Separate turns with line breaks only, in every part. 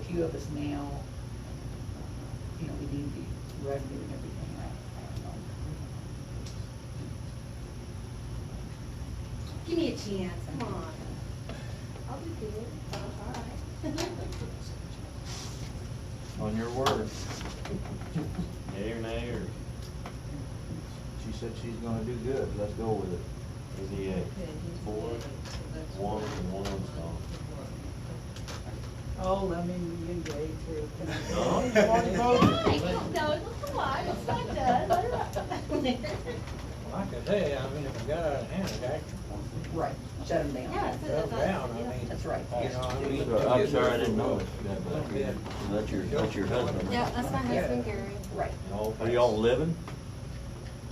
few of us now, you know, we need the revenue and everything, I, I don't know.
Give me a chance, come on.
I'll be good, all right.
On your word.
Yay or nay, or
She said she's gonna do good, let's go with it.
is he a four, one, and one abstain?
Oh, let me engage too.
No?
Yay, come- no, come on, it's not done, let her-
Like I say, I mean, if it got out of hand, it actually
Right, shut them down.
Yeah, so
fell
that's
down, I
yeah.
mean.
That's right.
You know, I mean.
So, I'm sorry, I didn't know.
Yeah.
That's your, that's your husband.
Yeah, that's my
Yeah.
husband Gary,
Right.
Are y'all living?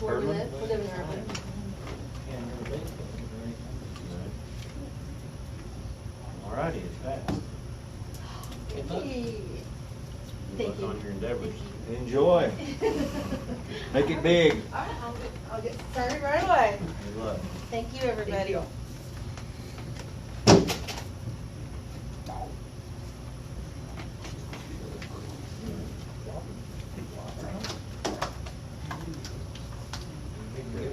where we
Urban?
live, we live in Irvine.
Can't really think of
Alrighty, it's passed.
Good luck.
Hey,
Good
Thank
luck
you.
on your endeavors.
Enjoy, make it big.
All right, I'll, get- I'll get started right away.
Good luck.
Thank you, everybody.
you.
very-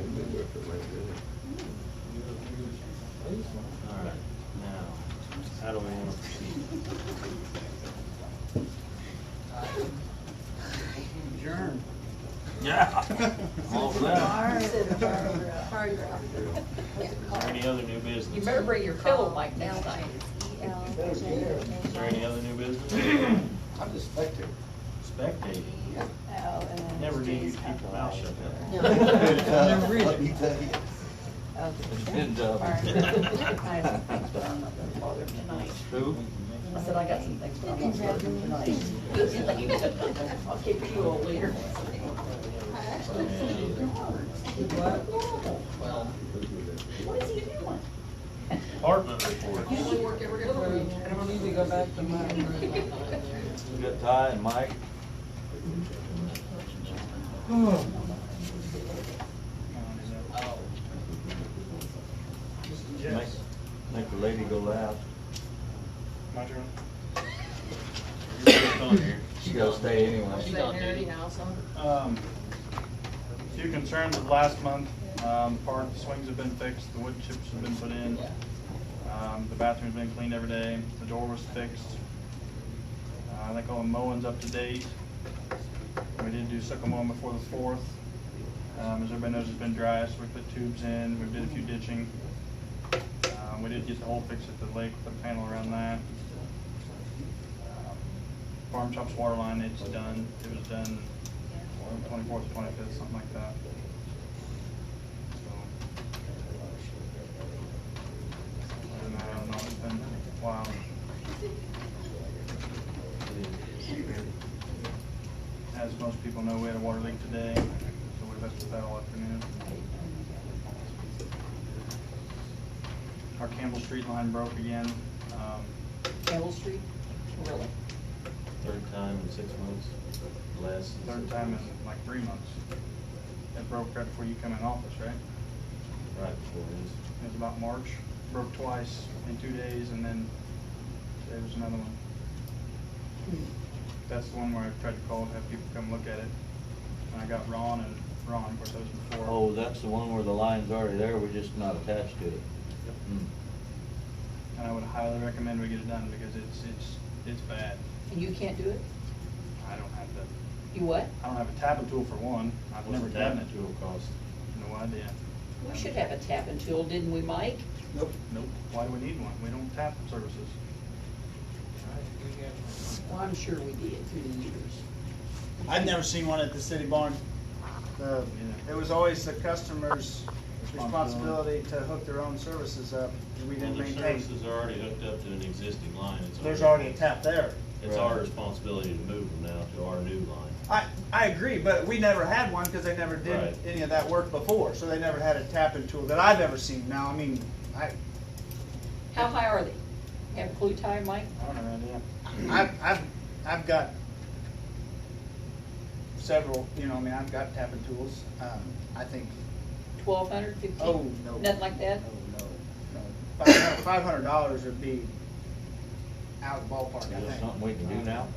Please, man.
Alright, now, how do we want to proceed?
All that.
Hard rock.
Is there any other new business?
You better bring your pillow like next time.
E
Is there any other new business?
I'm just spectating.
Spectating. Never knew you'd keep your mouth shut that
No.
Let me tell you.
And, uh, Who?
I said, I got some things for tonight. I'll keep you all later.
long. And
What is he doing?
Department reports.
We got Ty and Mike. Make, make the lady go loud.
My turn.
What's on here?
She gotta stay anyway.
Um, Few concerns of last month, um, part of the swings have been fixed, the wood chips have been put in. Um, the bathroom's been cleaned every day, the door was fixed. Uh, I think all the mowing's up to date. We did do sucker mowing before the fourth. Um, as everybody knows, it's been dry, so we put tubes in, we did a few ditching. Um, we did get the hole fixed at the lake, the panel around that. Um, Farm shop's water line, it's done, it was done twenty-fourth, twenty-fifth, something like that. So, other than that, I don't know, it's uh, been a while. As most people know, we had a water leak today, so we messed with that all afternoon. Our Campbell Street line broke again, um,
Campbell Street? Really?
Third time in six months, less. than
third
six
time in
months.
like three months. It broke right before you come in office, right?
Right before this.
It was about March, broke twice in two days, and then there was another one. That's the one where I tried to call to have people come look at it, and I got Ron, and Ron, of course, that was before.
Oh, that's the one where the line's already there, we're just not attached to it. Hmm.
And I would highly recommend we get it done, because it's, it's, it's bad.
And you can't do it?
I don't have the,
You what?
I don't have a tapping tool for one, I've
What's
never
the
done
damage
it,
tool cost?
no idea.
We should have a tap and tool, didn't we, Mike?
Nope.
Nope, why do we need one? We don't tap services.
Well, I'm sure we did through the years.
I've never seen one at the city barn. The,
Yeah.
Uh, it was always the customer's
Responsibility.
responsibility to hook their own services up, and we
Well,
didn't
their
maintain.
services are already hooked up to an existing line. It's
There's already a tap there.
It's our responsibility to move them now to our new line.
I, I agree, but we never had one because they never
Right.
did any of that work before, so they never had a tapping tool that I've ever seen. Now, I mean, I,
How high are they? Have a clue tie, Mike?
I don't have an idea.
I've, I've, I've got several, you know, I mean, I've got tapping tools. Um, I think,
Twelve hundred, fifteen?
oh, no.
Nothing like that?
No, no, no. Five hundred dollars would be out of the ballpark, I
Is that
think.
something we can do now?